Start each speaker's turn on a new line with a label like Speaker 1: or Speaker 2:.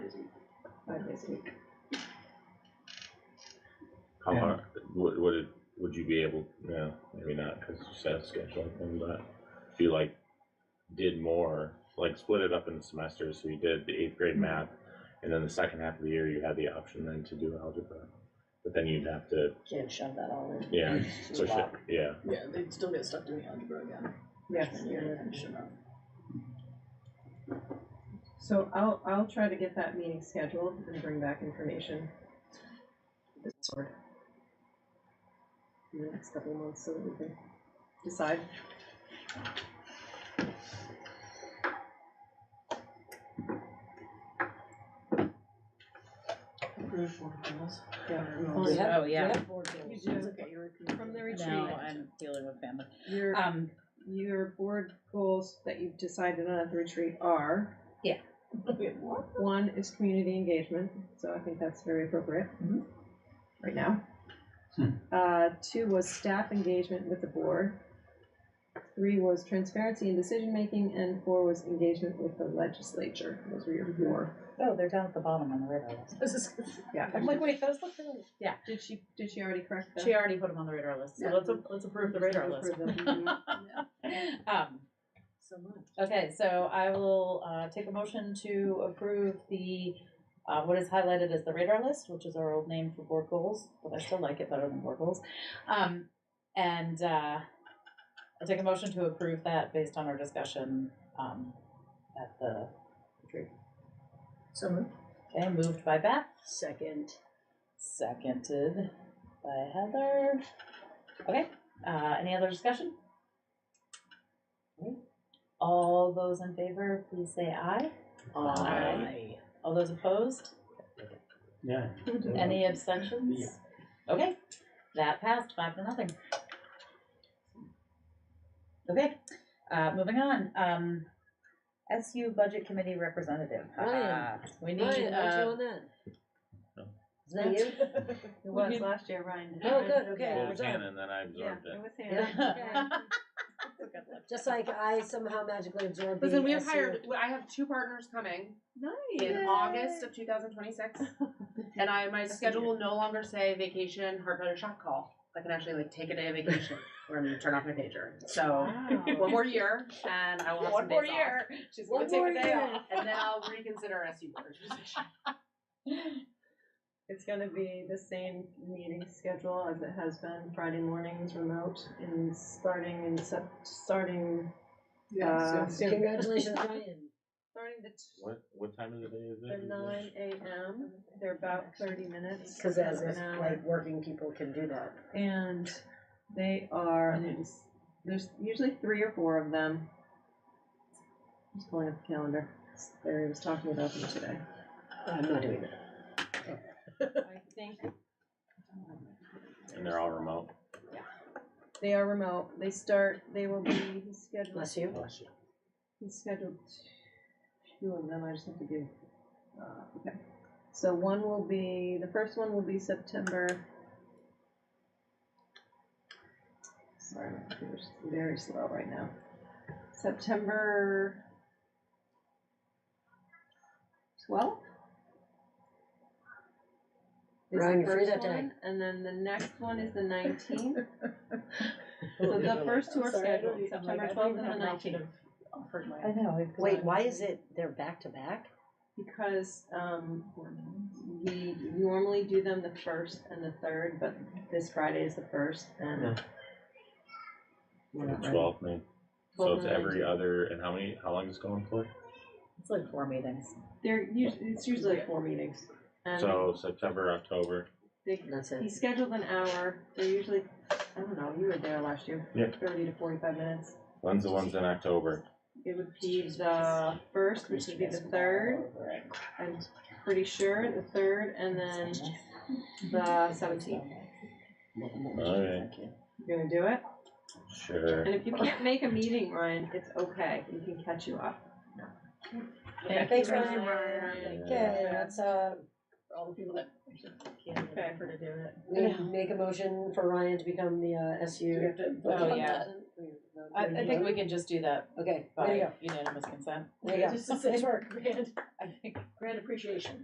Speaker 1: this week.
Speaker 2: How
Speaker 3: Yeah.
Speaker 2: hard, would, would it, would you be able, no, maybe not, because you said scheduling thing, but if you like did more, like split it up into semesters, so you did the eighth grade math, and then the second half of the year, you had the option then to do algebra. But then you'd have to,
Speaker 1: Should have shoved that all in.
Speaker 2: yeah,
Speaker 1: It's just a
Speaker 2: push it,
Speaker 1: lot.
Speaker 2: yeah,
Speaker 4: Yeah, they'd still get stuck doing algebra again.
Speaker 5: Yes,
Speaker 4: And you're finishing up.
Speaker 5: so I'll, I'll try to get that meeting scheduled and bring back information. This sort. In the next couple of months, so that we can decide.
Speaker 1: Oh, yeah.
Speaker 6: Oh, yeah.
Speaker 4: You
Speaker 5: do.
Speaker 4: It's okay, you're.
Speaker 5: From the retreat.
Speaker 6: No, I'm dealing with family.
Speaker 5: Your,
Speaker 6: Um,
Speaker 5: your board goals that you've decided on at the retreat are,
Speaker 4: What?
Speaker 5: one is community engagement, so I think that's very appropriate.
Speaker 4: Mhm.
Speaker 5: Right now. Uh, two was staff engagement with the board. Three was transparency in decision-making, and four was engagement with the legislature, those were your four.
Speaker 6: oh, they're down at the bottom on the radar list.
Speaker 4: This is.
Speaker 5: Yeah,
Speaker 6: I'm like, wait, those look really. Yeah,
Speaker 5: did she, did she already correct that?
Speaker 6: she already put them on the radar list, so
Speaker 4: Yeah.
Speaker 6: let's, a- let's approve the radar list. Um,
Speaker 4: So much.
Speaker 6: okay, so I will, uh, take a motion to approve the, uh, what is highlighted as the radar list, which is our old name for board goals, but I still like it better than board goals. Um, and, uh, I'll take a motion to approve that based on our discussion, um, at the retreat.
Speaker 4: So much.
Speaker 6: Okay, moved by Beth.
Speaker 1: Second.
Speaker 6: Seconded by Heather. Okay, uh, any other discussion? Okay. All those in favor, please say aye.
Speaker 2: Aye.
Speaker 6: All those opposed?
Speaker 3: Yeah.
Speaker 6: Any abstentions? Okay, that passed five to nothing. Okay, uh, moving on, um, SU Budget Committee Representative.
Speaker 1: Ryan.
Speaker 6: Uh, We need, uh,
Speaker 1: that?
Speaker 2: No.
Speaker 1: Is that you?
Speaker 5: It was last year, Ryan. did
Speaker 1: Oh,
Speaker 5: mine.
Speaker 1: good, okay.
Speaker 2: Well,
Speaker 1: Yeah.
Speaker 2: it was Hannah, and then I absorbed
Speaker 5: Yeah, it
Speaker 2: it.
Speaker 5: was Hannah.
Speaker 1: Yeah.
Speaker 6: That's a good look.
Speaker 1: Just like I somehow magically absorbed the.
Speaker 7: Listen, we have
Speaker 1: SU.
Speaker 7: hired. I have two partners coming in
Speaker 5: Nice.
Speaker 7: August of 2026, and I my schedule will no longer say vacation, hard drive, or shot call. I can actually like take a day of vacation, or I'm gonna turn off my pager. So
Speaker 6: uh,
Speaker 5: Wow.
Speaker 7: one more year, and I will have
Speaker 6: One
Speaker 7: some
Speaker 6: more
Speaker 7: days
Speaker 6: year.
Speaker 7: Off. She's gonna
Speaker 1: One
Speaker 7: take
Speaker 1: more
Speaker 7: a day
Speaker 1: year.
Speaker 7: off, and then I'll reconsider SU board position.
Speaker 5: It's gonna be the same meeting schedule as it has been, Friday mornings remote and starting in Sep- starting, uh, soon.
Speaker 1: Congratulations, Ryan.
Speaker 5: Starting the, t-
Speaker 2: What, what time of the day is
Speaker 5: the
Speaker 2: it?
Speaker 5: nine AM, they're about thirty minutes.
Speaker 1: Cause as if
Speaker 5: an hour.
Speaker 1: like working people can do that.
Speaker 5: And they are, and there's, there's usually three or four of them. Just pulling up the calendar, Barry was talking about them today.
Speaker 1: I'm not doing that.
Speaker 5: I think
Speaker 2: And they're all remote.
Speaker 5: they are remote, they start, they will be scheduled
Speaker 1: Bless you.
Speaker 5: He's scheduled two of them, I just have to do, uh, okay. So one will be, the first one will be September. Sorry, my computer's very slow right now. September twelfth?
Speaker 1: Ryan, you're free that day.
Speaker 5: And then the next one is the nineteenth. So the first two are
Speaker 6: Sorry, I don't
Speaker 5: scheduled,
Speaker 6: sound like
Speaker 5: September
Speaker 6: I
Speaker 5: twelfth
Speaker 6: think
Speaker 5: and the
Speaker 6: that mouth should
Speaker 5: nineteenth.
Speaker 6: have offered my- I know. it's-
Speaker 1: Wait, why is it, they're back to back?
Speaker 5: Because um, we normally do them the first and the third, but this Friday is the first and. we're not ready.
Speaker 2: Twelve, nine. So
Speaker 5: Twelve
Speaker 2: it's
Speaker 5: and
Speaker 2: every uh,
Speaker 5: 19.
Speaker 2: other, and how many, how long is it going for?
Speaker 6: It's like four meetings.
Speaker 5: They're usually, it's usually like four meetings. And
Speaker 2: So September, October.
Speaker 5: they,
Speaker 1: That's
Speaker 5: he
Speaker 1: it.
Speaker 5: scheduled an hour, they're usually, I don't know, you were there last year.
Speaker 2: Yeah.
Speaker 5: Thirty to forty-five minutes.
Speaker 2: When's the ones in October?
Speaker 5: It would be the first, which would be the third, I'm pretty sure, the third, and then the seventeenth.
Speaker 2: Okay.
Speaker 5: You gonna do it?
Speaker 2: Sure.
Speaker 5: And if you can't make a meeting, Ryan, it's okay. We can catch you up.
Speaker 1: Thanks,
Speaker 6: you,
Speaker 1: Ryan. Okay, let's, uh,
Speaker 4: For all the people that.
Speaker 5: Okay, for to do it.
Speaker 1: we make a motion for Ryan to become the uh, SU.
Speaker 6: Oh, yeah. I, I think we can just do that
Speaker 1: Okay, there you
Speaker 6: by
Speaker 1: go,
Speaker 6: unanimous consent.
Speaker 1: there you go.
Speaker 4: Just to say,
Speaker 1: Nice work.
Speaker 4: grand,
Speaker 6: I think
Speaker 4: grand appreciation.